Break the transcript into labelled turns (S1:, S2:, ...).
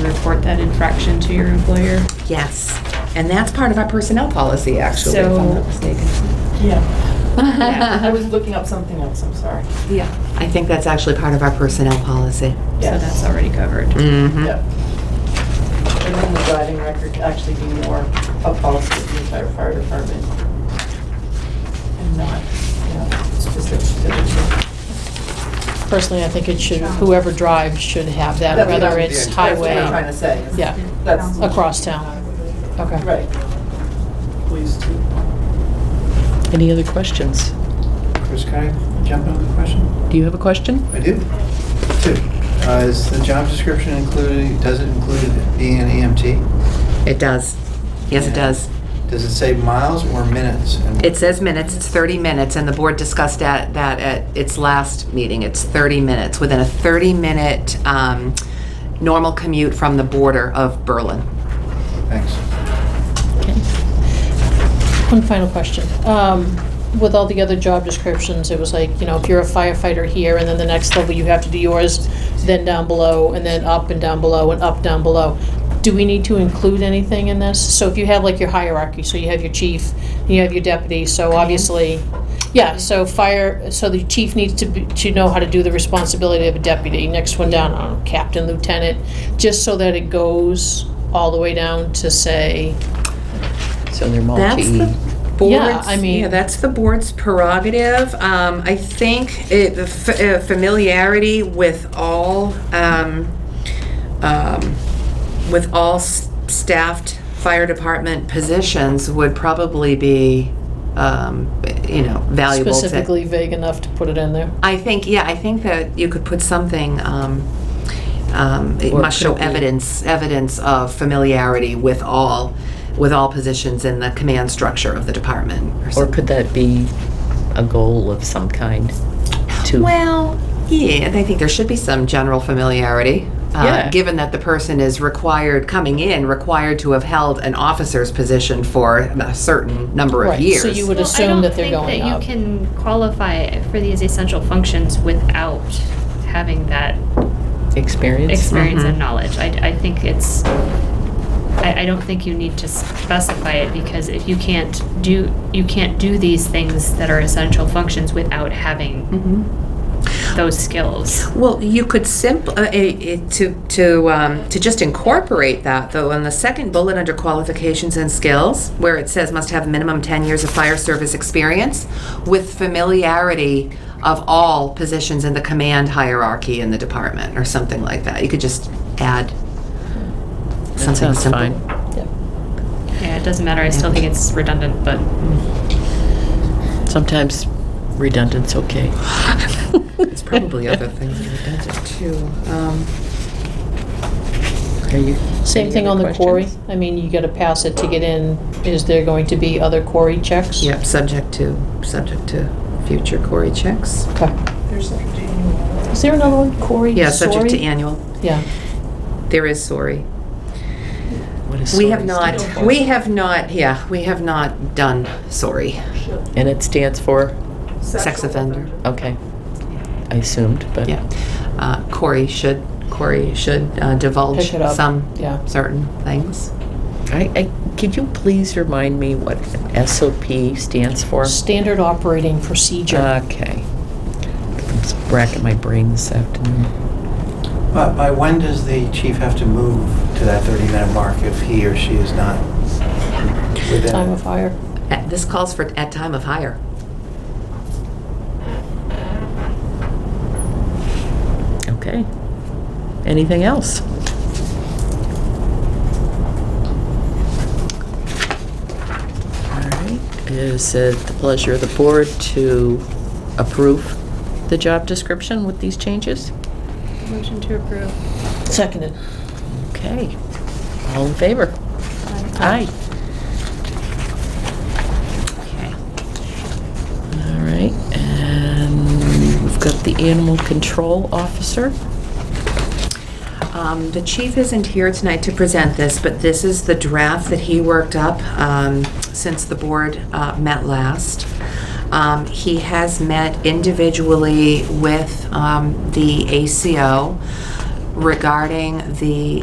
S1: report that infraction to your employer.
S2: Yes, and that's part of our personnel policy, actually, if I'm not
S1: So-
S2: mistaken.
S3: Yeah, I was looking up something else, I'm sorry.
S2: Yeah, I think that's actually part of our personnel policy.
S1: So
S3: Yes.
S1: that's already covered.
S2: Mm-hmm.
S3: Yep. And then the driving record to actually be more a policy of the entire fire department. And not, you know, specific to the chief.
S4: Personally, I think it should, whoever drives should have that,
S3: That's what
S4: whether
S3: I'm-
S4: it's
S3: That's what I'm trying
S4: highway,
S3: to say. is
S4: yeah,
S3: That's,
S4: across town. Okay.
S3: right. Please too.
S5: Any other questions?
S6: Chris, can I jump in with a question?
S5: Do you have a question?
S6: I do. Two. Uh, Is the job description included, does it include being an E EMT?
S2: It does. Yes, it does.
S6: Does it say miles or minutes? And
S2: It says minutes, it's 30 minutes, and the board discussed that, that at its last meeting, it's 30 minutes, within a 30-minute um, normal commute from the border of Berlin.
S6: Thanks.
S4: Okay. One final question. Um, With all the other job descriptions, it was like, you know, if you're a firefighter here, and then the next level, you have to do yours, then down below, and then up and down below, and up, down below. Do we need to include anything in this? So if you have like your hierarchy, so you have your chief, you have your deputy, so obviously, yeah, so fire, so the chief needs to, be- to know how to do the responsibility of a deputy. Next one down, I don't know, captain, lieutenant, just so that it goes all the way down to say,
S5: So they're
S2: That's
S5: multi.
S2: the board's,
S4: Yeah, I mean-
S2: yeah, that's the board's prerogative. Um, I think it, the f- uh, familiarity with all, um, um, with all s- staffed fire department positions would probably be, um, you know, valuable to.
S4: specifically vague enough to put it in there.
S2: I think, yeah, I think that you could put something, um, um, it
S5: Or
S2: must show
S5: could be-
S2: evidence, evidence of familiarity with all, with all positions in the command structure of the department or
S5: Or
S2: something.
S5: could that be a goal of some kind? To
S2: Well, yeah, and I think there should be some general familiarity. uh,
S5: Yeah.
S2: Given that the person is required, coming in, required to have held an officer's position for a certain number of
S4: Right, so
S2: years.
S4: you would-
S7: Well,
S4: assume that they're going
S7: I
S4: up.
S7: don't think that you can qualify for these essential functions without having that
S5: experience?
S7: experience and knowledge. I, I think it's, I, I don't think you need to specify it because if you can't do, you can't do these things that are essential functions without having
S2: Mhm.
S7: those skills.
S2: Well, you could simply, to, to, um, to just incorporate that, though, in the second bullet under qualifications and skills, where it says must have minimum 10 years of fire service experience with familiarity of all positions in the command hierarchy in the department, or something like that. You could just add
S5: That
S2: something
S5: sounds fine.
S2: simple.
S7: Yeah, it doesn't matter. I still think it's redundant, but
S5: Sometimes redundant's okay.
S2: It's probably other things that are redundant, too. Um,
S5: Are you?
S4: Same
S5: any
S4: thing on
S5: other
S4: the quarry.
S5: questions?
S4: I mean, you gotta pass it to get in. Is there going to be other quarry checks?
S2: Yep, subject to, subject to future Cory checks.
S4: Okay. Is there another one? Quarry,
S2: Yeah, subject to
S4: sorry?
S2: annual.
S4: Yeah.
S2: There is sorry.
S5: What is
S2: We have
S5: SORI
S2: not,
S5: stand for?
S2: we have not, yeah, we have not done, sorry,
S5: And it stands for,
S2: sex offender,
S5: okay. I assumed, but.
S2: yeah. Uh, Corey should, Corey should uh, divulge
S4: Pick it up.
S2: some
S4: Yeah.
S2: certain things.
S5: I, I, could you please remind me what SOP stands for?
S4: Standard operating procedure.
S5: Okay. It's racking my brain this afternoon.
S6: But by when does the chief have to move to that 30-minute mark if he or she is not
S2: Uh,
S6: within?
S4: Time of hire.
S2: At- This calls for at time of hire.
S5: Okay. Anything else? All right. Is it the pleasure of the board to approve the job description with these changes?
S7: motion to approve.
S4: Seconded.
S5: Okay. All in favor? Aye.
S2: Okay.
S5: All right, and we've got the animal control officer.
S2: Um, The chief isn't here tonight to present this, but this is the draft that he worked up um, since the board uh, met last. Um, He has met individually with um, the ACO regarding the